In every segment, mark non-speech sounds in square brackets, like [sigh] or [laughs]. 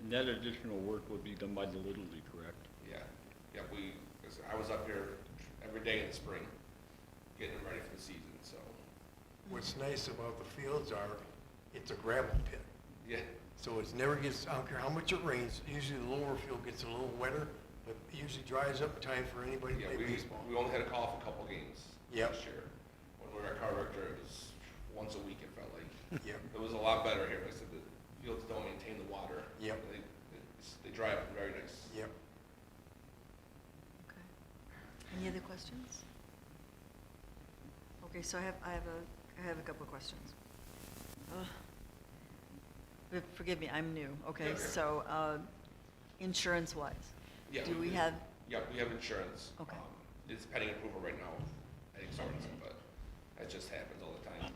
And that additional work would be done by the Little League, correct? Yeah, yeah, we, 'cause I was up here every day in the spring, getting them ready for the season, so, What's nice about the fields are, it's a gravel pit. yeah, So it's never gets, I don't care how much it rains, usually the lower field gets a little wetter, but it usually dries up in time for anybody to yeah, play we, baseball. we only had a call for a couple games Yep. last year. When we were at Carver, it was once a week, it felt like. Yep. It was a lot better here, I said, the fields don't maintain the water. Yep. They, it's- they dry up very nice. Yep. Okay. Any other questions? Okay, so I have, I have a, I have a couple of questions. Ugh. But Forgive me, I'm new, okay, Okay. so, uh, insurance-wise? Yeah, Do we have, Yeah, we have insurance. Okay. Um, It's pending approval right now, I think, sorry, but that just happens all the time.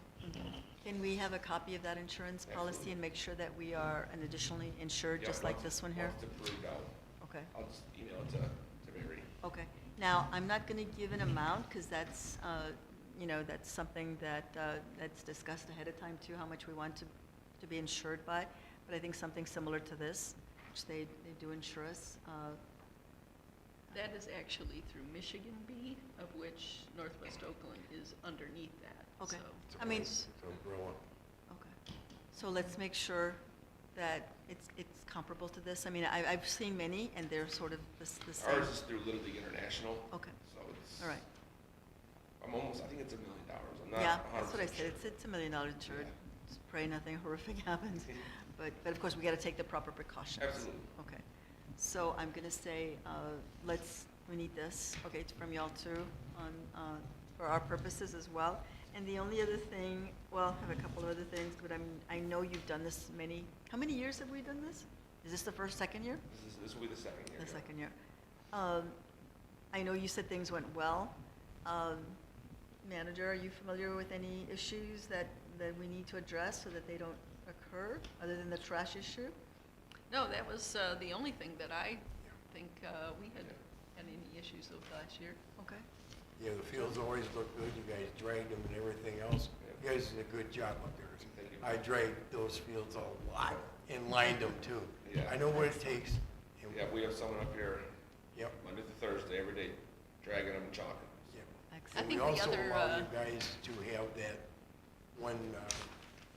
can we have a copy of that insurance policy Absolutely. and make sure that we are an additionally insured, Yeah, just like once- this one here? Once it's approved, I'll, Okay. I'll just email it to, to Mary. Okay. Now, I'm not going to give an amount because that's, uh, you know, that's something that, uh, that's discussed ahead of time too, how much we want to, to be insured by. But I think something similar to this, which they, they do insure us. uh, That is actually through Michigan Bee, of which Northwest Oakland is underneath that, Okay. so. It's a I mean- nice- It's umbrella. Okay. So let's make sure that it's, it's comparable to this. I mean, I, I've seen many and they're sort of the s- the same. Ours is through Little League International. Okay. So it's. All right. I'm almost, I think it's a million dollars. I'm not Yeah, 100% that's what I said. sure. It's, it's a million dollar insured. Yeah. Just pray nothing [laughs] horrific [laughs] happens. But, but of course, we got to take the proper precautions. Absolutely. Okay. So I'm going to say, uh, let's, we need this, okay, it's from y'all too, on, uh, for our purposes as well. And the only other thing, well, I have a couple of other things, but I'm, I know you've done this many, how many years have we done this? Is this the first, second year? This is, this will be the second year. The yeah. second year. Um, I know you said things went well. Um, Manager, are you familiar with any issues that, that we need to address so that they don't occur, other than the trash issue? No, that was uh, the only thing that I think uh, we had, had any issues with last year. Okay, Yeah, the fields always look good, you guys dragged them and everything else. You guys did a good job up there. Thank you. I dragged those fields a lot and lined them too. Yeah. I know what it takes. and- Yeah, we have someone up here Yep, Monday through Thursday, every day, dragging them and chalking. yep. I And excellent. we think the also other, allow you uh, guys to have that one uh,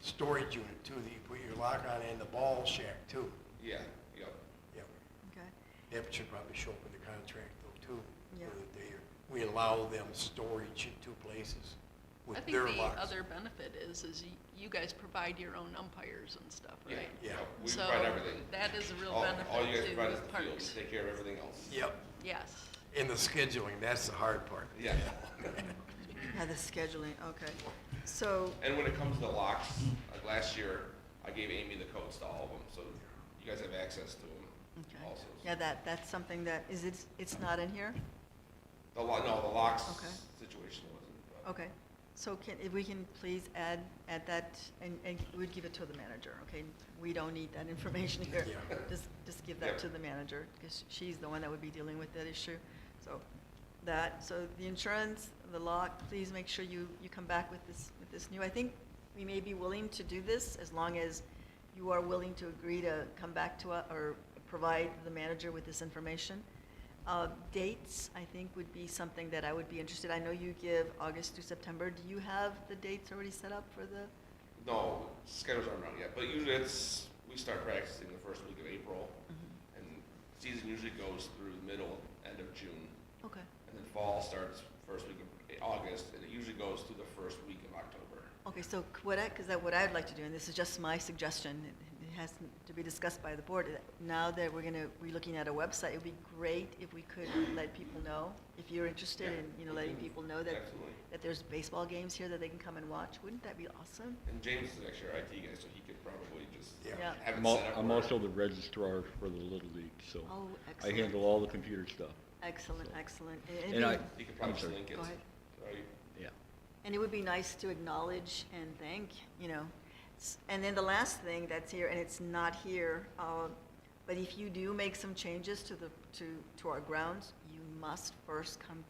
storage unit too, that you put your lock on and the ball shack too. Yeah, yep. Yep. Okay, That should probably show up in the contract though too. Yeah. that they- We allow them storage in two places I with think their the locks. other benefit is, is y- you guys provide your own umpires and stuff, Yeah, right? Yeah. yep. We provide everything. So that is a real All, all you guys benefit provide is the to field, parks. We take care of everything else. Yep, Yes. and the scheduling, that's the hard part. Yeah. [laughs] yeah, the scheduling, okay. So, And when it comes to the locks, like last year, I gave Amy the codes to all of them, so you guys have access to them okay, also. yeah, that, that's something that, is it, it's not in here? The lo, no, the locks Okay. situation wasn't, but. Okay, so can, if we can please add, add that, and, and we'd give it to the manager, okay? We don't need that [laughs] information here. Yeah. Just, just give Yeah. that to the manager, because she's the one that would be dealing with that issue. So, that, so the insurance, the lock, please make sure you, you come back with this, with this new. I think we may be willing to do this, as long as you are willing to agree to come back to, us or provide the manager with this information. Uh, Dates, I think, would be something that I would be interested. I know you give August through September. Do you have the dates already set up for the, No, schedules aren't out yet, but usually it's, we start practicing the first week of April, and season usually goes through the middle, end of June, okay, and then fall starts first week of August, and it usually goes through the first week of October. okay, so c- what I, because what I'd like to do, and this is just my suggestion, it- it has to be discussed by the board, that now that we're gonna, we're looking at a website, it'd be great if we could let people know, if you're interested Yeah, in, you know, we letting can- people know that, Absolutely. that there's baseball games here that they can come and watch. Wouldn't that be awesome? And James is actually our IT guy, so he could probably just Yeah. Yeah. have it I'm al- set up. I'm where- also the registrar for the Little League, so Oh, I excellent. handle all the computer stuff. Excellent, excellent. And it'd And I, be- He could I'm probably just sorry. link it. Go ahead. Right? yeah. And it would be nice to acknowledge and thank, you know. S- And then the last thing that's here, and it's not here, uh, but if you do make some changes to the, to, to our grounds, you must first come